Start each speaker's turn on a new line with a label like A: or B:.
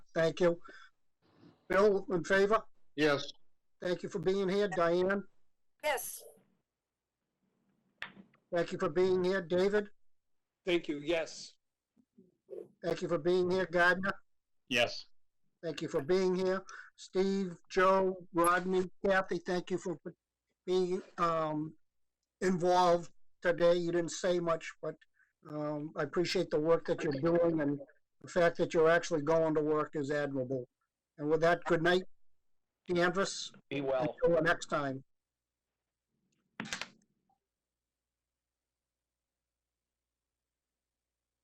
A: Thank you. Bill, in favor?
B: Yes.
A: Thank you for being here. Diane,
C: Yes,
A: thank you for being here. David,
D: Thank you, yes.
A: thank you for being here. Gardner,
B: Yes.
A: thank you for being here. Steve, Joe, Rodney, Kathy, thank you for being, um, involved today. You didn't say much, but, um, I appreciate the work that you're doing and the fact that you're actually going to work is admirable. And with that, good night, Danvers.
D: Be well.
A: Until next time.